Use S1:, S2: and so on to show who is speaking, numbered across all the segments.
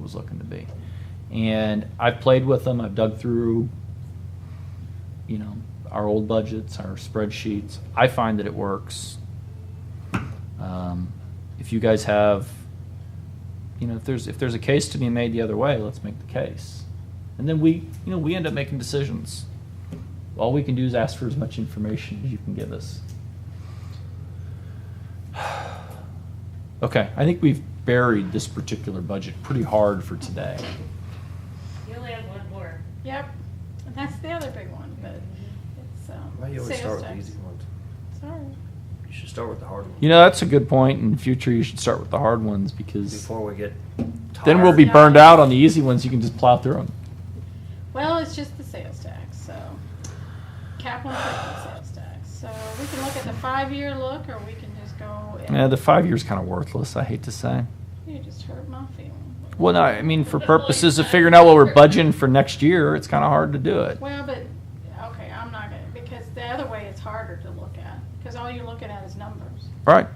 S1: was looking to be. And I've played with them. I've dug through, you know, our old budgets, our spreadsheets. I find that it works. Um, if you guys have, you know, if there's if there's a case to be made the other way, let's make the case. And then we, you know, we end up making decisions. All we can do is ask for as much information as you can give us. Okay, I think we've buried this particular budget pretty hard for today.
S2: You only have one more.
S3: Yep, and that's the other big one, but it's, um,
S4: Why you always
S3: sales
S4: start with the
S3: tax.
S4: easy ones?
S3: Sorry.
S4: You should start with the hard ones.
S1: You know, that's a good point. In future, you should start with the hard ones because
S4: Before we get tired.
S1: then we'll be burned out on the easy ones. You can just plow through them.
S3: Well, it's just the sales tax, so. Capital improvement sales tax, so we can look at the five-year look, or we can just go. and-
S1: Yeah, the five years kind of worthless. I hate to say.
S3: You just hurt my feelings.
S1: Well, no, I mean, for purposes of figuring out what we're budgeting for next year, it's kind of hard to do it.
S3: Well, but, okay, I'm not gonna, because the other way it's harder to look at, because all you're looking at is numbers.
S1: Right.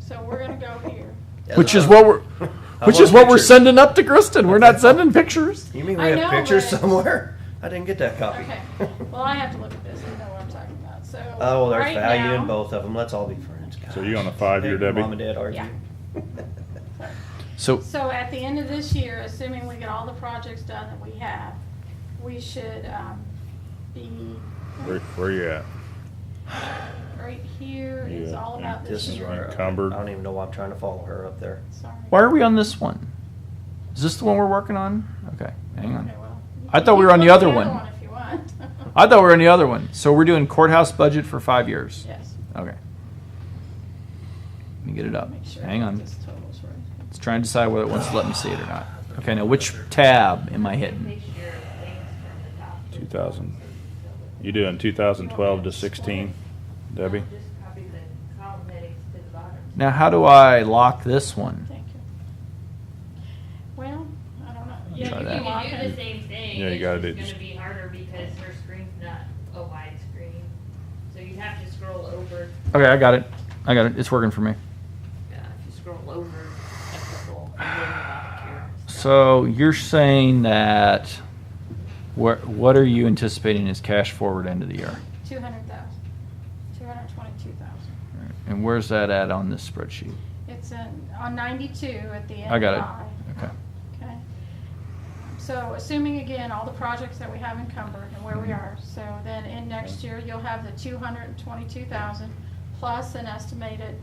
S3: So we're gonna go here.
S4: Yeah,
S1: Which
S4: the-
S1: is what we're,
S4: I
S1: which
S4: want
S1: is what we're
S4: pictures.
S1: sending up to Kristen. We're not sending pictures.
S4: You mean we
S3: I
S4: have
S3: know,
S4: pictures
S3: but-
S4: somewhere? I didn't get that copy.
S3: Okay, well, I have to look at this to know what I'm talking about, so.
S4: Oh, well, there's
S3: right
S4: value in
S3: now-
S4: both of them. Let's all be friends.
S5: So you
S4: Gosh.
S5: on a five-year,
S4: Hey,
S5: Debbie?
S4: Mom and Dad argue.
S3: Yeah.
S1: So,
S3: So at the end of this year, assuming we get all the projects done that we have, we should um, be,
S5: Where, where you at?
S3: right here is
S5: Yeah,
S3: all
S5: yeah.
S3: about this
S4: This is
S3: year.
S4: where
S5: Encumbered.
S4: I don't even know why I'm trying to follow her up there.
S3: Sorry.
S1: why are we on this one? Is this the one we're working on? Okay, hang on.
S3: Okay, well, you
S1: I
S3: can
S1: thought we
S3: keep
S1: were on the
S3: looking at
S1: other one.
S3: if you want.
S1: I thought we were on the other one. So we're doing courthouse budget for five years.
S3: Yes.
S1: Okay. Let me get it up.
S3: Make sure
S1: Hang on.
S3: this total's right.
S1: It's trying to decide whether it wants to let me see it or not. Okay, now which tab am I hitting?
S2: Take your things from the top.
S5: 2000. You doing 2012 to 16, Debbie?
S2: Just copy the column headings to the bottom.
S1: Now, how do I lock this one?
S3: Thank you. Well, I don't know.
S1: Yeah,
S2: Yeah,
S1: try
S2: you
S1: that.
S2: can do the same thing.
S5: Yeah, you
S2: it's
S5: gotta
S2: just
S5: do-
S2: gonna be harder because her screen's not a wide screen. So you'd have to scroll over,
S1: Okay, I got it. I got it. It's working for me.
S2: yeah, if you scroll over a couple, and then about here.
S1: So you're saying that what what are you anticipating as cash forward end of the year?
S3: 200,000, 222,000.
S1: And where's that at on this spreadsheet?
S3: It's in, on 92 at the end.
S1: I got
S3: of
S1: it. Okay.
S3: Okay. So assuming again, all the projects that we have encumbered and where
S1: Mm-hmm.
S3: we are, so then in next year, you'll have the two hundred and twenty-two thousand plus an estimated,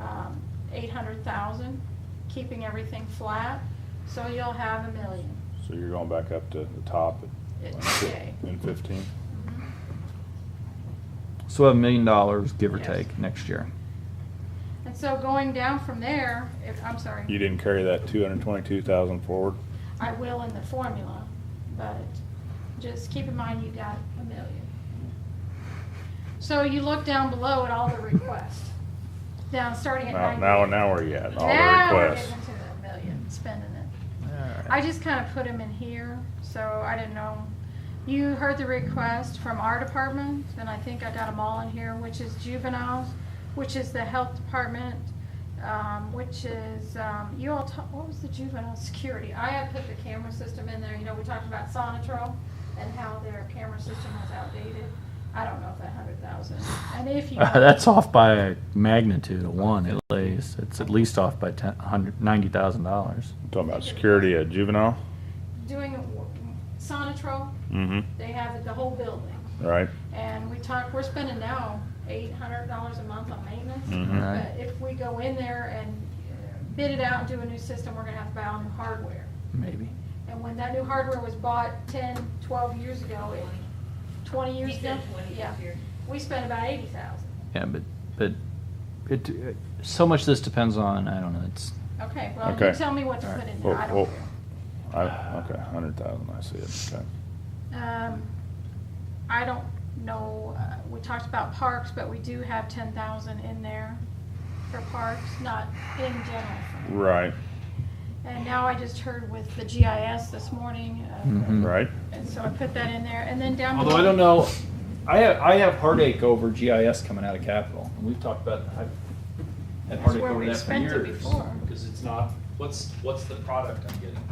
S3: um, eight hundred thousand, keeping everything flat, so you'll have a million.
S5: So you're going back up to the top at
S3: It's okay.
S5: in 15? Mm-hmm.
S1: So we'll have a million dollars, give or
S3: Yes.
S1: take, next year.
S3: And so going down from there, if, I'm sorry.
S5: You didn't carry that 222,000 forward?
S3: I will in the formula, but just keep in mind you got a million. So you look down below at all the requests, down, starting at
S5: Now,
S3: ninety.
S5: now, now where you at? in All
S3: Now
S5: the
S3: we're
S5: requests.
S3: getting to the million, spending it.
S1: All right.
S3: I just kinda put them in here, so I didn't know. You heard the request from our department, and I think I got them all in here, which is juveniles, which is the health department, um, which is, um, you all ta- what was the juvenile security? I had put the camera system in there, you know, we talked about Sonatrol and how their camera system was outdated. I don't know if that hundred thousand, and if you.
S1: That's off by a magnitude of one at least. It's at least off by ten, hundred, ninety thousand dollars.
S5: Talking about security at juvenile?
S3: Doing Sonatrol,
S5: Mm-hmm.
S3: they have the whole building.
S5: Right?
S3: And we talk, we're spending now eight hundred dollars a month on maintenance.
S5: Mhm.
S1: Right.
S3: But if we go in there and bid it out and do a new system, we're gonna have to buy all new hardware.
S1: Maybe.
S3: And when that new hardware was bought 10, 12 years ago, it- twenty years
S2: He
S3: ago,
S2: said twenty
S3: yeah,
S2: this year.
S3: we spent about eighty thousand.
S1: Yeah, but but it, it so much of this depends on I don't know. It's
S3: Okay, well, you
S5: Okay.
S3: tell me what to
S1: All right.
S3: put in there, I
S5: Whoa,
S3: don't
S5: whoa. I, okay, 100,000, I see it. Okay.
S3: care. Um, I don't know, uh, we talked about parks, but we do have ten thousand in there for parks, not in general fund.
S5: Right,
S3: And now I just heard with the GIS this morning, uh,
S1: Mhm.
S5: right?
S3: and so I put that in there, and then down.
S1: although I
S3: below-
S1: don't know. I have, I have heartache over GIS coming out of Capitol, and we've talked about I've had
S3: That's
S1: heartache
S3: where
S1: over
S3: we
S1: that for
S3: spent it
S1: years
S3: before.
S1: because it's not what's what's the product I'm getting.